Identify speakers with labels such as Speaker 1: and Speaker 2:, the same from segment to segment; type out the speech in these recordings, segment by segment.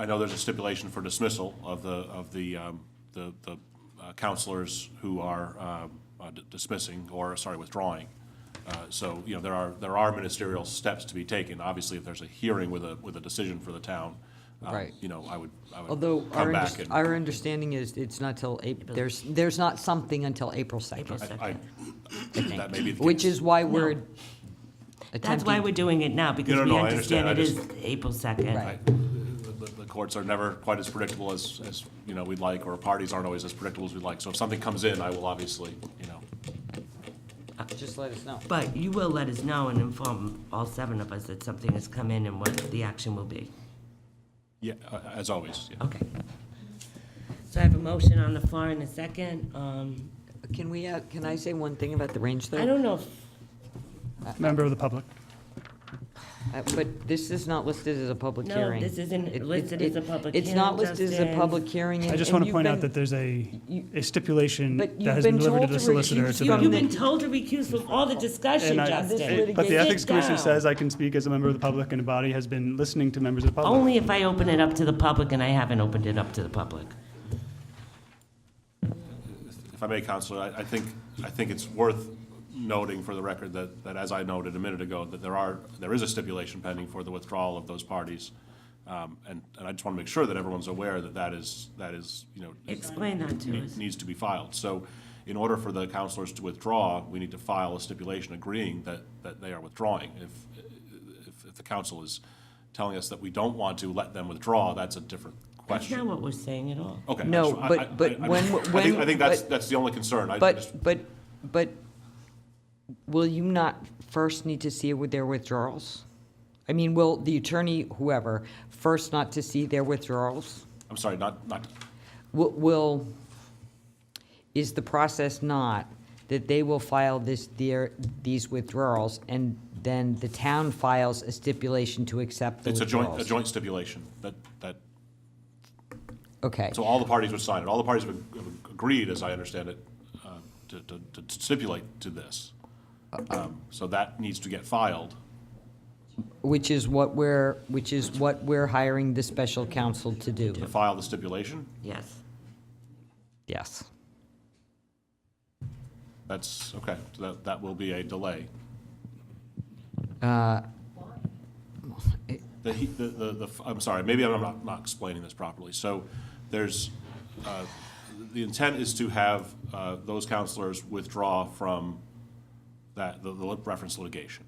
Speaker 1: I know there's a stipulation for dismissal of the, of the, um, the the uh, counselors who are um, uh, d- dismissing, or, sorry, withdrawing. Uh, So, you know, there are, there are ministerial steps to be taken. Obviously, if there's a hearing with a, with a decision for the town, um,
Speaker 2: Right.
Speaker 1: you know, I would, I would
Speaker 2: Although
Speaker 1: come
Speaker 2: our,
Speaker 1: back
Speaker 2: unders-
Speaker 1: and,
Speaker 2: our understanding is it's not till, Ap- there's, there's not something until April
Speaker 3: April
Speaker 2: 2nd,
Speaker 1: I,
Speaker 3: 2nd.
Speaker 1: that may be the case.
Speaker 2: which is why we're
Speaker 3: No. That's why
Speaker 2: attempting,
Speaker 3: we're doing it now, because
Speaker 1: no,
Speaker 3: we
Speaker 1: no, I
Speaker 3: understand
Speaker 1: understand.
Speaker 3: it
Speaker 1: I
Speaker 3: is April 2nd.
Speaker 2: Right.
Speaker 1: I- The the- the courts are never quite as predictable as, as, you know, we'd like, or parties aren't always as predictable as we'd like. So if something comes in, I will obviously, you know,
Speaker 2: just let us know.
Speaker 3: But you will let us know and inform all seven of us that something has come in and what the action will be.
Speaker 1: yeah, uh, as always, yeah.
Speaker 3: Okay. So I have a motion on the floor and a second. Um,
Speaker 2: Can we, uh, can I say one thing about the range though?
Speaker 3: I don't know, if-
Speaker 4: Member of the public.
Speaker 2: Uh, But this is not listed as a public
Speaker 3: No,
Speaker 2: hearing.
Speaker 3: this isn't
Speaker 2: It- it-
Speaker 3: listed as a
Speaker 2: it-
Speaker 3: public
Speaker 2: It's not
Speaker 3: hearing,
Speaker 2: listed as a
Speaker 3: Justin.
Speaker 2: public hearing.
Speaker 4: I
Speaker 2: and-
Speaker 4: just
Speaker 2: and
Speaker 4: want to
Speaker 2: you've
Speaker 4: point out
Speaker 2: been-
Speaker 4: that there's a,
Speaker 2: you-
Speaker 4: a stipulation
Speaker 2: But you've
Speaker 4: that has
Speaker 2: been
Speaker 4: been delivered to
Speaker 2: told to
Speaker 4: the solicitor
Speaker 2: recuse
Speaker 4: to
Speaker 2: your
Speaker 3: you've
Speaker 4: them.
Speaker 3: been told to recuse from all the discussion,
Speaker 4: And I-
Speaker 3: Justin.
Speaker 2: litigation-
Speaker 4: But the
Speaker 3: Sit
Speaker 4: Ethics Commission
Speaker 3: down.
Speaker 4: says I can speak as a member of the public, and the body has been listening to members of the public.
Speaker 3: Only if I open it up to the public, and I haven't opened it up to the public.
Speaker 1: If I may, Counselor, I, I think, I think it's worth noting for the record that, that as I noted a minute ago, that there are, there is a stipulation pending for the withdrawal of those parties. Um, And, and I just want to make sure that everyone's aware that that is, that is, you know,
Speaker 3: Explain that to
Speaker 1: ne-
Speaker 3: us.
Speaker 1: needs to be filed. So in order for the counselors to withdraw, we need to file a stipulation agreeing that, that they are withdrawing. If, if, if the council is telling us that we don't want to let them withdraw, that's a different
Speaker 3: That's not
Speaker 1: question.
Speaker 3: what we're saying at all.
Speaker 1: Okay. I
Speaker 2: No,
Speaker 1: just- I-
Speaker 2: but-
Speaker 1: I-
Speaker 2: but
Speaker 1: I- I-
Speaker 2: when-
Speaker 1: I think-
Speaker 2: when-
Speaker 1: I think that's,
Speaker 2: but-
Speaker 1: that's the only concern. I just-
Speaker 2: But, but, but will you not first need to see with their withdrawals? I mean, will the attorney, whoever, first not to see their withdrawals?
Speaker 1: I'm sorry, not, not,
Speaker 2: Will- Will, is the process not that they will file this, their, these withdrawals, and then the town files a stipulation to accept the
Speaker 1: it's a joint, a
Speaker 2: withdrawals?
Speaker 1: joint stipulation that, that,
Speaker 2: Okay,
Speaker 1: so all the parties would sign it. All the parties have ag- agreed, as I understand it, uh, to, to to stipulate to this. Um, So that needs to get filed.
Speaker 2: which is what we're, which is what we're hiring the special counsel to do,
Speaker 1: To file the stipulation,
Speaker 3: Yes.
Speaker 2: yes.
Speaker 1: that's, okay, so that, that will be a delay. The, he- the, the, the f- I'm sorry, maybe I'm not, not explaining this properly. So there's, uh, the intent is to have uh, those counselors withdraw from that, the the reference litigation.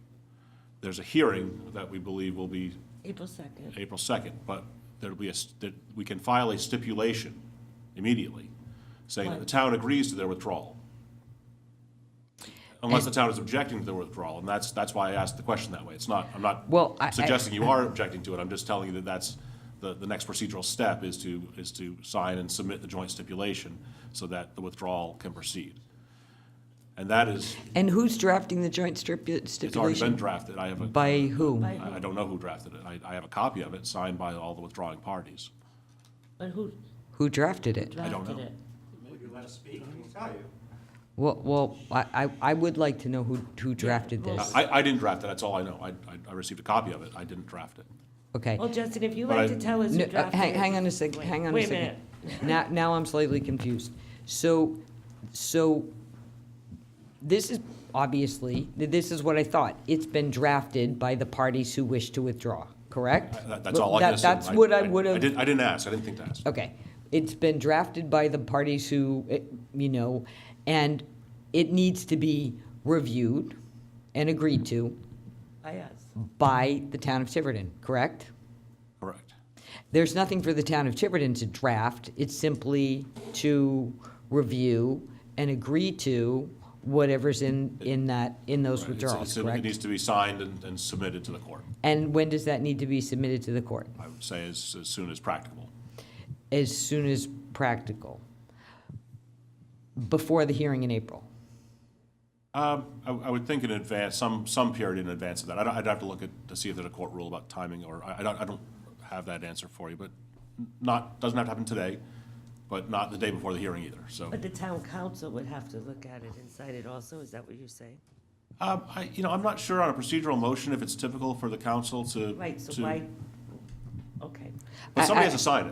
Speaker 1: There's a hearing that we believe will be
Speaker 3: April 2nd.
Speaker 1: April 2nd, but there'll be a, st- that we can file a stipulation immediately saying that the town agrees to their withdrawal. Unless the town is objecting to their withdrawal, and that's, that's why I asked the question that way. It's not, I'm not
Speaker 2: Well, I- I-
Speaker 1: suggesting you are objecting to it, I'm just telling you that that's, the, the next procedural step is to, is to sign and submit the joint stipulation so that the withdrawal can proceed. And that is,
Speaker 2: And who's drafting the joint stripu-
Speaker 1: it's already been
Speaker 2: stipulation?
Speaker 1: drafted, I have a.
Speaker 2: By who?
Speaker 3: By-
Speaker 1: I I don't know who drafted it. I, I have a copy of it signed by all the withdrawing parties.
Speaker 3: But who
Speaker 2: Who drafted it?
Speaker 1: don't
Speaker 3: drafted
Speaker 1: know.
Speaker 3: it?
Speaker 2: Well, well, I, I, I would like to know who, who drafted
Speaker 3: well-
Speaker 2: this.
Speaker 1: I, I didn't draft it, that's all I know. I, I- I received a copy of it, I didn't draft it.
Speaker 2: Okay.
Speaker 3: Well, Justin, if you
Speaker 1: But
Speaker 3: like
Speaker 1: I-
Speaker 3: to tell us
Speaker 2: No,
Speaker 3: who
Speaker 2: uh,
Speaker 3: drafted
Speaker 2: hang,
Speaker 3: it.
Speaker 2: hang on a sec, hang on a
Speaker 3: Wait a
Speaker 2: second. Now, now I'm slightly confused. So, so this is, obviously, th- this is what I thought. It's been drafted by the parties who wish to withdraw, correct?
Speaker 1: Uh, That- That's all I
Speaker 2: That-
Speaker 1: can assume.
Speaker 2: That's what I would
Speaker 1: I
Speaker 2: have
Speaker 1: didn't, I didn't ask, I didn't think to ask.
Speaker 2: Okay. It's been drafted by the parties who, eh, you know, and it needs to be reviewed and agreed to
Speaker 3: By us.
Speaker 2: by the town of Tiverton, correct?
Speaker 1: Correct.
Speaker 2: There's nothing for the town of Tiverton to draft. It's simply to review and agree to whatever's in, in that, in those
Speaker 1: Right, it's-
Speaker 2: withdrawals,
Speaker 1: it's- It
Speaker 2: correct?
Speaker 1: needs to be signed and, and submitted to the court,
Speaker 2: And when does that need to be submitted to the court?
Speaker 1: I would say as, as soon as practicable.
Speaker 2: As soon as practical. Before the hearing in April.
Speaker 1: Um, I, I would think in advance, some, some period in advance of that. I don't, I'd have to look at, to see if there's a court rule about timing, or, I, I don't, I don't have that answer for you, but not, doesn't have to happen today, but not the day before the hearing either, so.
Speaker 3: But the town council would have to look at it and sign it also, is that what you're saying?
Speaker 1: Um, I, you know, I'm not sure on a procedural motion if it's typical for the council to.
Speaker 3: Right, so
Speaker 1: to-
Speaker 3: why, Okay.
Speaker 1: But
Speaker 2: I-
Speaker 1: somebody
Speaker 2: I-
Speaker 1: has to sign it,